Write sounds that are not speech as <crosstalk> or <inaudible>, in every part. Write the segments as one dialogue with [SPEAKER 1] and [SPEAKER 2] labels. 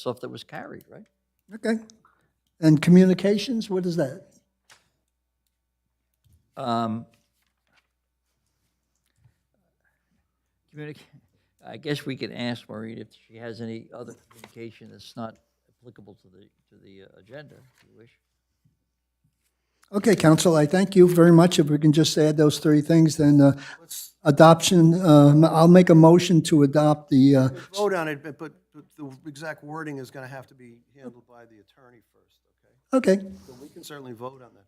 [SPEAKER 1] stuff that was carried, right?
[SPEAKER 2] Okay. And communications, what is that?
[SPEAKER 1] Um, communic- I guess we could ask Maureen if she has any other communication that's not applicable to the, to the uh, agenda, if you wish.
[SPEAKER 2] Okay, council, I thank you very much. If we can just add those three things, then uh, adoption, um, I'll make a motion to adopt the, uh,
[SPEAKER 3] vote on it, but, but the exact wording is going to have to be handled by the attorney first, okay?
[SPEAKER 2] okay,
[SPEAKER 3] So we can certainly vote on that.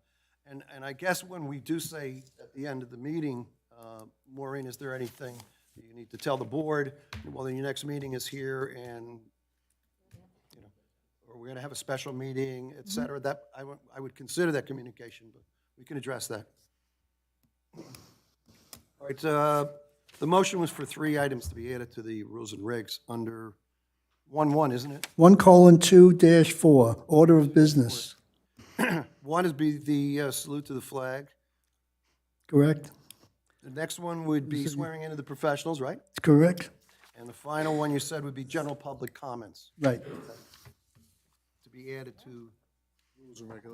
[SPEAKER 3] And, and I guess when we do say at the end of the meeting, uh, Maureen, is there anything that you need to tell the board? Well, then your next meeting is here and, you know, or we're going to have a special meeting, et cetera. That, I would, I would consider that communication, but we can address that. All right, uh, the motion was for three items to be added to the rules and regs under 1-1, isn't it?
[SPEAKER 2] one colon two dash four, order of business,
[SPEAKER 3] One is be the uh, salute to the flag.
[SPEAKER 2] correct?
[SPEAKER 3] The next one would be swearing into the professionals, right?
[SPEAKER 2] Correct?
[SPEAKER 3] And the final one you said would be general public comments
[SPEAKER 2] Right.
[SPEAKER 3] to be added to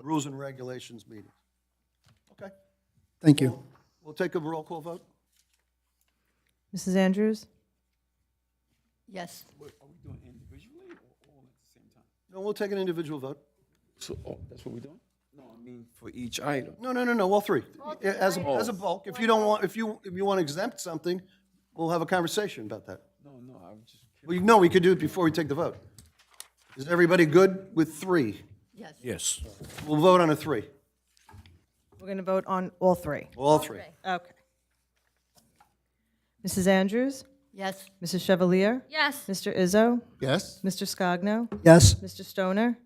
[SPEAKER 3] rules and regulations meeting. Okay,
[SPEAKER 2] Thank you.
[SPEAKER 3] we'll take a roll call vote.
[SPEAKER 4] Mrs. Andrews?
[SPEAKER 5] Yes.
[SPEAKER 3] No, we'll take an individual vote.
[SPEAKER 6] So, oh, that's what we're doing? No, I mean, for each item.
[SPEAKER 3] No, no, no, no, all three. Yeah, As, a- as a bulk, if you don't want, if you, if you want to exempt something, we'll have a conversation about that.
[SPEAKER 6] No, Oh, no, I was just.
[SPEAKER 3] Well, you know, we could do it before we take the vote. Is everybody good with three?
[SPEAKER 5] Yes.
[SPEAKER 6] Yes.
[SPEAKER 3] We'll vote on a three,
[SPEAKER 4] We're going to vote on all three.
[SPEAKER 3] all three.
[SPEAKER 4] Okay. Mrs. Andrews?
[SPEAKER 5] Yes.
[SPEAKER 4] Mrs. Chevalier?
[SPEAKER 5] Yes.
[SPEAKER 4] Mr. Izzo?
[SPEAKER 3] Yes?
[SPEAKER 4] Mr. Scogno?
[SPEAKER 2] Yes,
[SPEAKER 4] Mr. Stoner?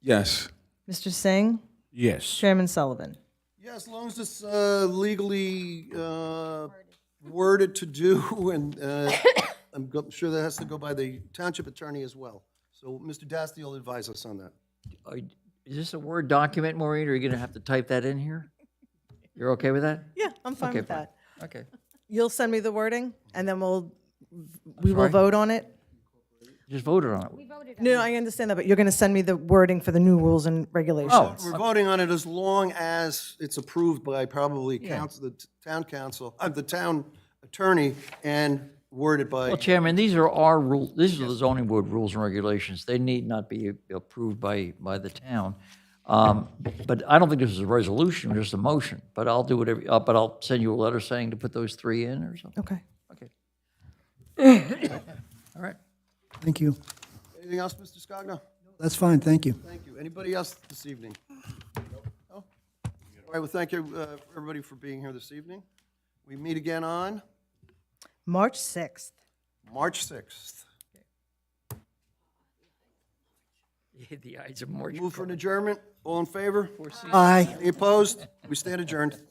[SPEAKER 6] Yes.
[SPEAKER 4] Mr. Singh?
[SPEAKER 6] Yes.
[SPEAKER 4] Chairman Sullivan?
[SPEAKER 3] Yeah, as long as it's uh, legally uh, worded to do, <laughs> and uh, I'm go- sure that has to go by the township attorney as well. So Mr. Dasty will advise us on that.
[SPEAKER 1] Are y- Is this a Word document, Maureen, or are you going to have to type that in here? You're okay with that?
[SPEAKER 4] Yeah, I'm fine
[SPEAKER 1] Okay,
[SPEAKER 4] with
[SPEAKER 1] fine.
[SPEAKER 4] that.
[SPEAKER 1] Okay.
[SPEAKER 4] You'll send me the wording, and then we'll, we will
[SPEAKER 1] sorry?
[SPEAKER 4] vote on it?
[SPEAKER 1] Just voted on it.
[SPEAKER 4] No, I understand that, but you're going to send me the wording for the new rules and
[SPEAKER 1] Oh,
[SPEAKER 4] regulations?
[SPEAKER 3] We're voting on it as long as it's approved by probably council, the t- town council, uh, the town attorney, and worded by,
[SPEAKER 1] well, Chairman, these are our rule, these are the zoning board rules and regulations. They need not be approved by, by the town. Um, But I don't think this is a resolution, just a motion, but I'll do whatever, uh, but I'll send you a letter saying to put those three in or
[SPEAKER 4] <laughs>
[SPEAKER 1] something.
[SPEAKER 4] Okay.
[SPEAKER 1] Okay. All right.
[SPEAKER 2] thank you.
[SPEAKER 3] anything else, Mr. Scogno?
[SPEAKER 2] That's fine, thank you.
[SPEAKER 3] Thank you. Anybody else this evening? No? All right, well, thank you, uh, everybody, for being here this evening. We meet again on?
[SPEAKER 4] March 6th.
[SPEAKER 3] March 6th.
[SPEAKER 1] The eyes of March.
[SPEAKER 3] Move for an adjournment. All in favor?
[SPEAKER 2] Aye.
[SPEAKER 3] Any opposed? We stand adjourned.